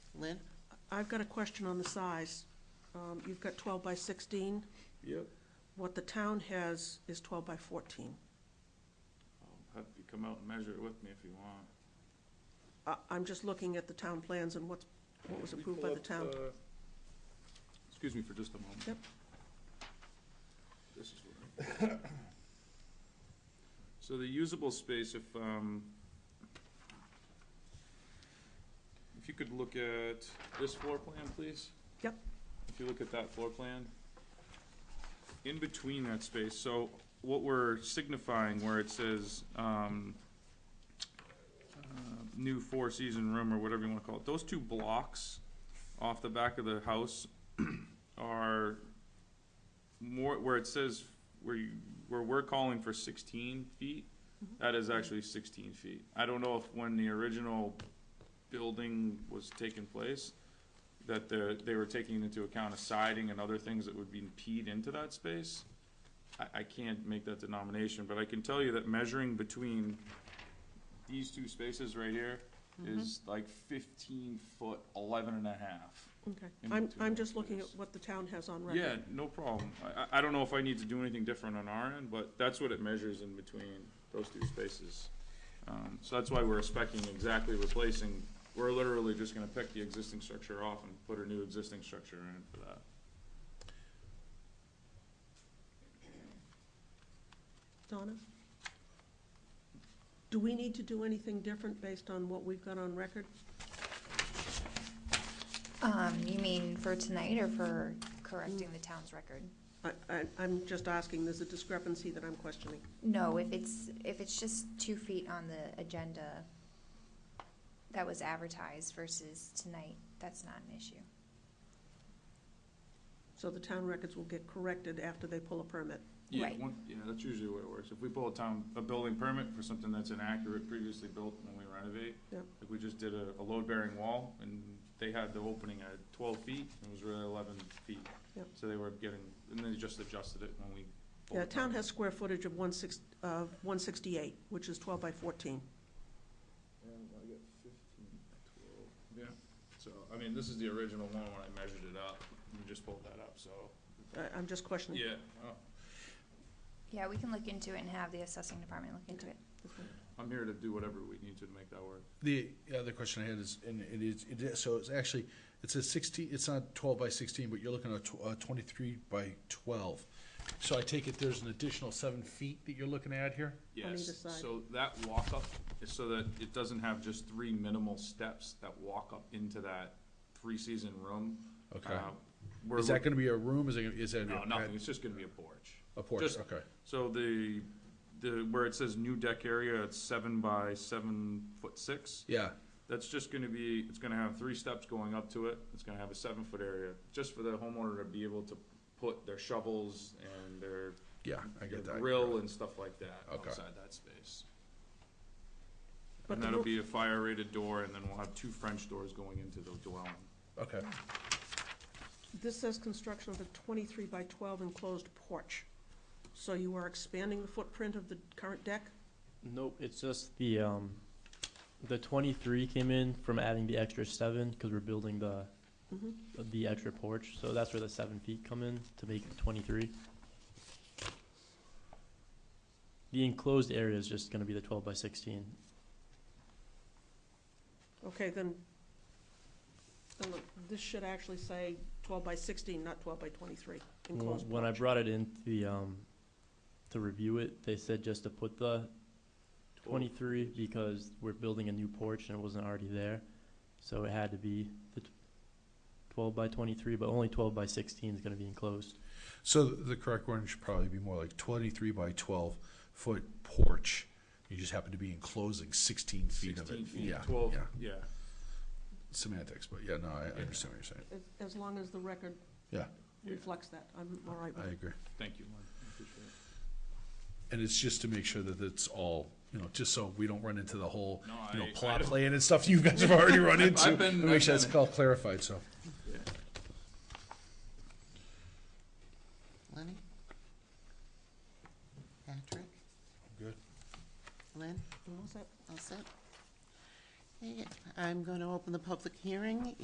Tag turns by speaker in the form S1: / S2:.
S1: Lynn?
S2: I've got a question on the size. Um, You've got twelve by sixteen.
S3: Yep.
S2: What the town has is twelve by fourteen.
S3: I'll Um, have you come out and measure it with me if you want.
S2: I, I'm just looking at the town plans and what's, what was
S3: Let me
S2: approved
S3: pull
S2: by the
S3: up,
S2: town.
S3: uh, Excuse me for just a moment.
S2: Yep.
S3: This is what I. So the usable space, if, um, if you could look at this floor plan, please?
S2: Yep.
S3: If you look at that floor plan, in between that space, so what we're signifying where it says, um, uh, new four-season room or whatever you wanna call it, those two blocks off the back of the house are more, where it says, where you, where we're calling for sixteen feet, that is actually sixteen feet. I don't know if when the original building was taking place, that the, they were taking into account a siding and other things that would be impede into that space. I, I can't make that denomination, but I can tell you that measuring between these two spaces right here is like fifteen foot, eleven and a half.
S2: Okay,
S3: in
S2: I'm,
S3: between
S2: I'm
S3: that
S2: just looking at
S3: space.
S2: what the town has on record.
S3: Yeah, no problem. I- I, I don't know if I need to do anything different on our end, but that's what it measures in between those two spaces. Um, so that's why we're specing exactly replacing, we're literally just gonna pick the existing structure off and put a new existing structure in for that.
S2: Donna? Do we need to do anything different based on what we've got on record?
S4: Um, you mean for tonight or for correcting the town's record?
S2: I, I, I'm just asking, there's a discrepancy that I'm questioning.
S4: No, if it's, if it's just two feet on the agenda that was advertised versus tonight, that's not an issue.
S2: So the town records will get corrected after they pull a permit.
S3: Yeah,
S4: Right.
S3: one- Yeah, that's usually the way it works. If we pull a town, a building permit for something that's inaccurate, previously built when we renovate.
S2: Yep.
S3: Like we just did a, a load bearing wall and they had the opening at twelve feet and it was really eleven feet.
S2: Yep.
S3: So they were getting, and they just adjusted it when we. pulled
S2: Yeah,
S3: the
S2: town
S3: permit.
S2: has square footage of one six, uh, one sixty-eight, which is twelve by fourteen.
S3: I got fifteen twelve. Yeah, so, I mean, this is the original one when I measured it up. We just pulled that up, so.
S2: I, I'm just questioning.
S3: Yeah, oh,
S4: Yeah, we can look into it and have the assessing department look into it.
S3: I'm here to do whatever we need to to make that work.
S5: The other question I had is, and it is, it is, so it's actually, it's a sixteen, it's not twelve by sixteen, but you're looking at tw- uh, twenty-three by twelve. So I take it there's an additional seven feet that you're looking at here?
S2: On
S3: Yes,
S2: either side.
S3: so that walk up is so that it doesn't have just three minimal steps that walk up into that three-season room.
S5: Okay.
S3: Uh, we're
S5: Is that
S3: look-
S5: gonna be a room, is it, is that?
S3: No, nothing, it's just gonna be a porch.
S5: A porch,
S3: Just-
S5: okay.
S3: So the, the, where it says new deck area, it's seven by seven foot six.
S5: Yeah,
S3: That's just gonna be, it's gonna have three steps going up to it, it's gonna have a seven foot area, just for the homeowner to be able to put their shovels and their.
S5: yeah, I
S3: their
S5: get that.
S3: Grill and stuff like that
S5: Okay.
S3: outside that space.
S2: But
S3: And
S2: the
S3: that'll
S2: roo-
S3: be a fire rated door, and then we'll have two French doors going into the dwelling.
S5: Okay,
S2: This says construction of a twenty-three by twelve enclosed porch. So you are expanding the footprint of the current deck?
S6: Nope, it's just the, um, the twenty-three came in from adding the extra seven, because we're building the,
S2: Mhm.
S6: the extra porch, so that's where the seven feet come in, to make it twenty-three. The enclosed area is just gonna be the twelve by sixteen.
S2: Okay, then, then look, this should actually say twelve by sixteen, not twelve by twenty-three, enclosed
S6: When I
S2: porch.
S6: brought it in, to the, um, to review it, they said just to put the twenty-three, because we're building a new porch and it wasn't already there, so it had to be the tw- twelve by twenty-three, but only twelve by sixteen is gonna be enclosed.
S5: so the correct one should probably be more like twenty-three by twelve foot porch. You just happen to be enclosing sixteen feet of it.
S3: Sixteen feet,
S5: Yeah,
S3: twelve,
S5: yeah.
S3: yeah,
S5: Semantics, but yeah, no, I I understand what you're saying.
S2: As- As long as the record
S5: Yeah,
S3: Yeah.
S2: reflects that, I'm all right with
S5: I
S2: it.
S5: agree.
S3: thank you, Lynn, I appreciate it.
S5: And it's just to make sure that it's all, you know, just so we don't run into the whole,
S3: No,
S5: you know,
S3: I- I
S5: plot
S3: don't-
S5: plan and stuff you guys have already run
S3: I've-
S5: into.
S3: I've been-
S5: And Make sure
S3: I've
S5: that's
S3: been-
S5: all clarified, so.
S1: Lenny? Patrick?
S5: Good.
S1: Lynn?
S2: And what's that?
S1: All set? Okay, I'm going to open the public hearing